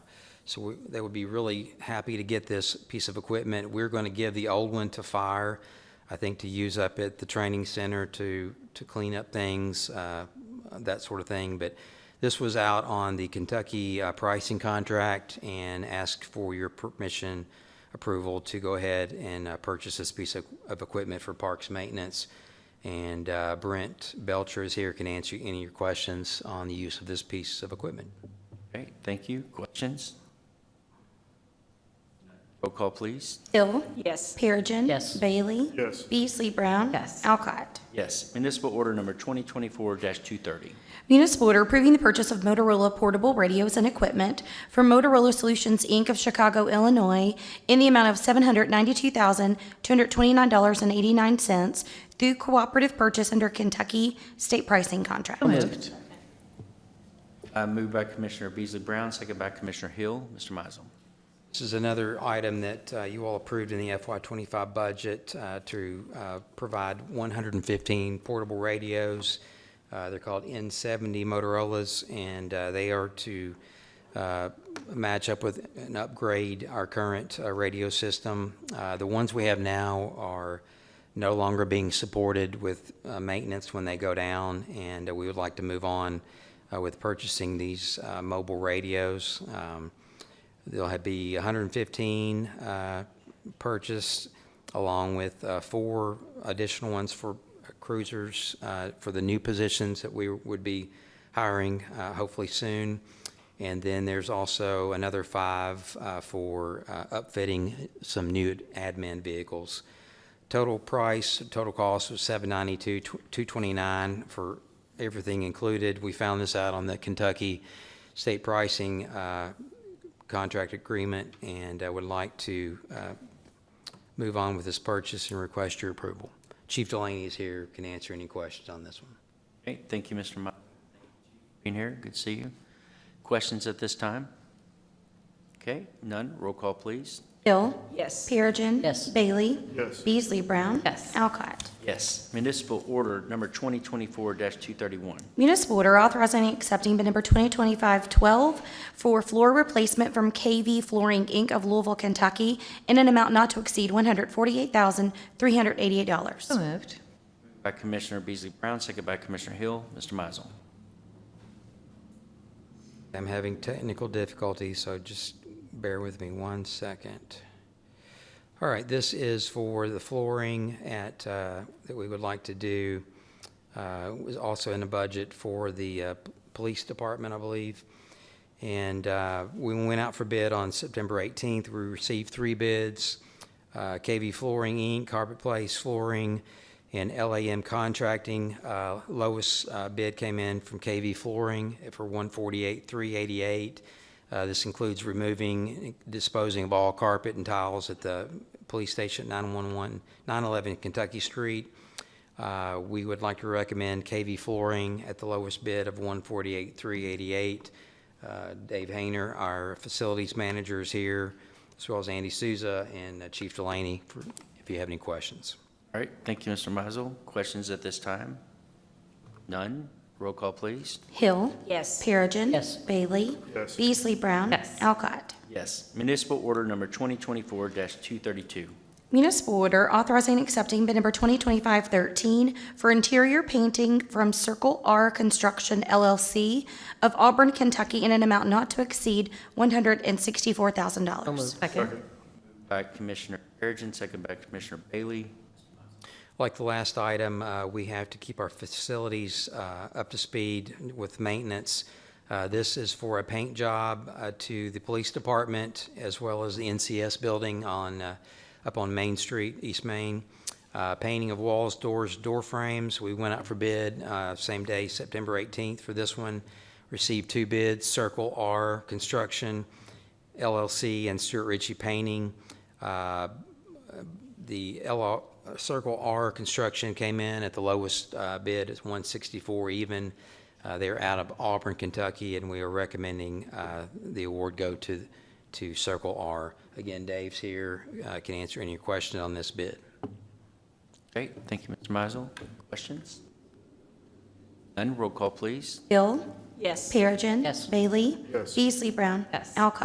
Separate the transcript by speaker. Speaker 1: So we- they would be really happy to get this piece of equipment. We're going to give the old one to fire, I think, to use up at the training center to, to clean up things, uh, that sort of thing. But this was out on the Kentucky uh, pricing contract and asked for your permission, approval to go ahead and uh, purchase this piece of, of equipment for parks maintenance. And uh, Brent Belcher is here, can answer any of your questions on the use of this piece of equipment.
Speaker 2: Okay, thank you. Questions? Roll call, please.
Speaker 3: Hill.
Speaker 4: Yes.
Speaker 3: Perigin.
Speaker 5: Yes.
Speaker 3: Bailey.
Speaker 6: Yes.
Speaker 3: Beasley Brown.
Speaker 5: Yes.
Speaker 3: Alcott.
Speaker 2: Yes, municipal order number 2024-230.
Speaker 3: Municipal order approving the purchase of Motorola portable radios and equipment from Motorola Solutions, Inc. of Chicago, Illinois, in the amount of $792,229.89 through cooperative purchase under Kentucky state pricing contract.
Speaker 5: moved.
Speaker 2: Uh, Moved by Commissioner Beasley Brown, second by Commissioner Hill. Mr. Mizel.
Speaker 1: This is another item that uh, you all approved in the FY twenty-five budget uh, to uh, provide one hundred and fifteen portable radios. Uh, They're called N seventy Motorola's, and uh, they are to uh, match up with and upgrade our current uh, radio system. Uh, The ones we have now are no longer being supported with uh, maintenance when they go down, and uh, we would like to move on uh, with purchasing these uh, mobile radios. Um, There'll have- be 115 uh, purchased, along with uh, four additional ones for cruisers, uh, for the new positions that we would be hiring uh, hopefully soon. And then there's also another five uh, for uh, upfitting some new admin vehicles. Total price, total cost was 792, 229 for everything included. We found this out on the Kentucky state pricing uh, contract agreement, and I would like to uh, move on with this purchase and request your approval. Chief Delaney is here, can answer any questions on this one.
Speaker 2: Okay, thank you, Mr. Mizel. Being here, good to see you. Questions at this time? Okay, none. Roll call, please.
Speaker 3: Hill.
Speaker 4: Yes.
Speaker 3: Perigin.
Speaker 5: Yes.
Speaker 3: Bailey.
Speaker 6: Yes.
Speaker 3: Beasley Brown.
Speaker 5: Yes.
Speaker 3: Alcott.
Speaker 2: Yes, municipal order number 2024-231.
Speaker 3: Municipal order authorizing and accepting bid number 2025-12 for floor replacement from KV Flooring, Inc. of Louisville, Kentucky, in an amount not to exceed
Speaker 5: So
Speaker 3: $148,388.
Speaker 5: moved.
Speaker 2: By Commissioner Beasley Brown, second by Commissioner Hill. Mr. Mizel.
Speaker 1: I'm having technical difficulties, so just bear with me one second. All right, this is for the flooring at, uh, that we would like to do. Uh, It was also in the budget for the uh, p- police department, I believe. And uh, we went out for bid on September 18th. We received three bids, uh, KV Flooring, Inc., Carpet Place Flooring, and LAM Contracting. Uh, Lowest uh, bid came in from KV Flooring for 148,388. Uh, This includes removing, disposing of all carpet and tiles at the police station at 911, 911 Kentucky Street. Uh, We would like to recommend KV Flooring at the lowest bid of 148,388. Uh, Dave Hayner, our facilities manager is here, as well as Andy Souza and uh, Chief Delaney, for- if you have any questions.
Speaker 2: All right, thank you, Mr. Mizel. Questions at this time? None. Roll call, please.
Speaker 3: Hill.
Speaker 4: Yes.
Speaker 3: Perigin.
Speaker 5: Yes.
Speaker 3: Bailey.
Speaker 6: Yes.
Speaker 3: Beasley Brown.
Speaker 5: Yes.
Speaker 3: Alcott.
Speaker 2: Yes. Municipal order number 2024-232.
Speaker 3: Municipal order authorizing and accepting bid number 2025-13 for interior painting from Circle R Construction LLC of Auburn, Kentucky, in an amount not to exceed $164,000.
Speaker 5: Second.
Speaker 2: By Commissioner Perigin, second by Commissioner Bailey.
Speaker 1: Like the last item, uh, we have to keep our facilities uh, up to speed with maintenance. Uh, This is for a paint job uh, to the police department as well as the NCS building on, uh, up on Main Street, East Main. Uh, Painting of walls, doors, door frames. We went out for bid uh, same day, September 18th for this one. Received two bids, Circle R Construction LLC and Stuart Ritchie Painting. Uh, the LR, uh, Circle R construction came in at the lowest uh, bid, it's 164 even. Uh, They're out of Auburn, Kentucky, and we are recommending uh, the award go to, to Circle R. Again, Dave's here, uh, can answer any question on this bid.
Speaker 2: Okay, thank you, Mr. Mizel. Questions? None. Roll call, please.
Speaker 3: Hill.
Speaker 4: Yes.
Speaker 3: Perigin.
Speaker 5: Yes.
Speaker 3: Bailey.
Speaker 6: Yes.
Speaker 3: Beasley Brown.
Speaker 5: Yes.
Speaker 3: Alcott.